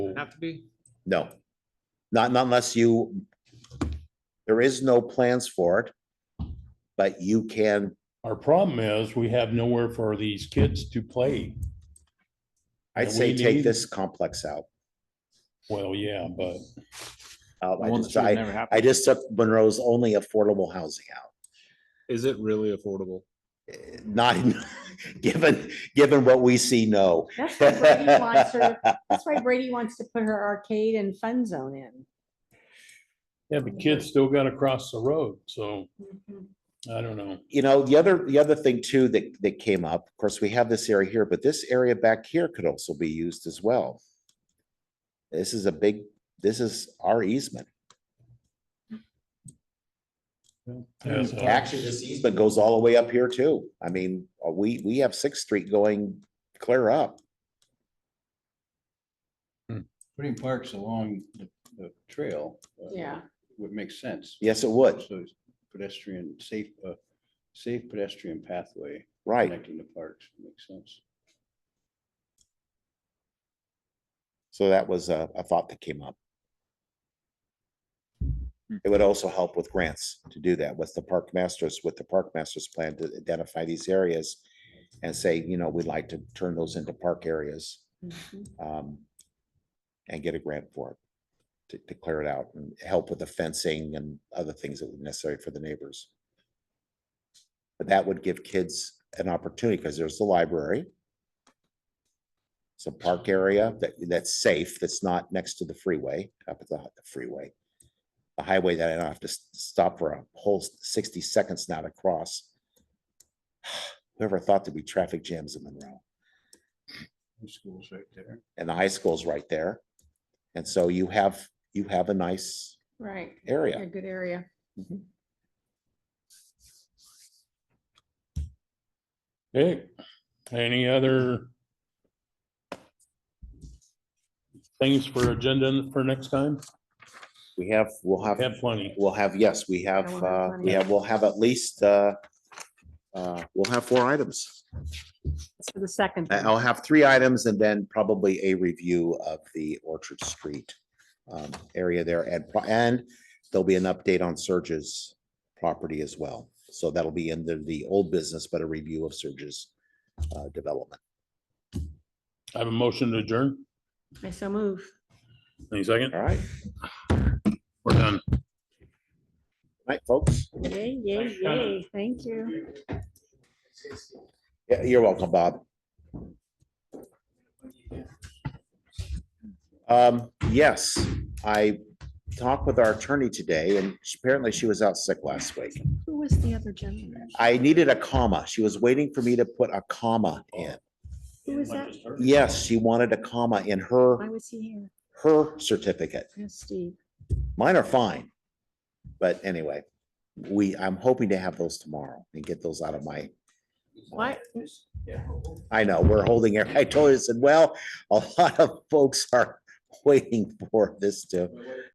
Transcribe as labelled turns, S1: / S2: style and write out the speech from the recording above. S1: have to be?
S2: No. Not, not unless you, there is no plans for it. But you can,
S3: Our problem is we have nowhere for these kids to play.
S2: I'd
S3: Yeah,
S2: say
S3: we
S2: take
S3: need-
S2: this complex out.
S3: Well, yeah, but
S2: Uh, I
S4: One
S2: just,
S4: that should
S2: I,
S4: never happen.
S2: I just took Monroe's only affordable housing out.
S1: Is it really affordable?
S2: Eh, Not, in- given, given what we see, no.
S5: That's why Brady wants her, that's why Brady wants to put her arcade and fun zone in.
S3: yeah, the kids still gotta cross the road, so
S5: Mm-hmm,
S3: I don't know.
S2: You know, the other, the other thing too that, that came up, of course, we have this area here, but this area back here could also be used as well. This is a big, this is our easement. Mm,
S3: Yeah, so-
S2: Actually, this easement goes all the way up here too. I mean, uh, we, we have Sixth Street going clear up.
S6: putting parks along the, the trail. uh,
S5: Yeah.
S6: Would make sense.
S2: Yes, it would,
S6: So it's pedestrian, safe, uh, safe pedestrian pathway
S2: right.
S6: connecting the parks, makes sense.
S2: So that was a, a thought that came up. It would also help with grants to do that with the park masters, with the park masters plan to identify these areas and say, you know, we'd like to turn those into park areas
S5: mm-hmm.
S2: um, and get a grant for it to, to clear it out and help with the fencing and other things that would be necessary for the neighbors. But that would give kids an opportunity because there's the library. Some park area that, that's safe, that's not next to the freeway, up at the hi- the freeway. The highway that I don't have to s- stop for a whole sixty seconds now to cross. Whoever thought there'd be traffic jams in Monroe?
S6: The Schools right there.
S2: and the high school's right there. And so you have, you have a nice
S5: Right, a
S2: area.
S5: good area.
S3: Okay, any other things for agenda for next time?
S2: We have, we'll
S3: We
S2: have,
S3: Have plenty.
S2: we'll have, yes, we have,
S5: we'll have
S2: uh,
S5: plenty.
S2: we have, we'll have at least, uh, uh, we'll have four items.
S5: So the second.
S2: I- I'll have three items and then probably a review of the Orchard Street um, area there and, pro- and there'll be an update on Surge's property as well. So that'll be in the, the old business, but a review of Surge's uh, development.
S3: I have a motion to adjourn.
S5: I so move.
S3: Any second?
S2: All right,
S3: We're done.
S2: night, folks.
S5: Yay, yay, yay. Thank you.
S2: Yeah, you're welcome, Bob. Um, yes, I talked with our attorney today and she- apparently she was out sick last week.
S5: Who was the other gentleman?
S2: I needed a comma. She was waiting for me to put a comma in.
S5: Who was that?
S2: Yes, she wanted a comma in
S5: Why
S2: her,
S5: was he here?
S2: her certificate.
S5: Yes, Steve.
S2: Mine are fine. But anyway, we, I'm hoping to have those tomorrow and get those out of my
S5: Why,
S2: I know, we're holding, it. I told her, I said, well, a lot of folks are waiting for this to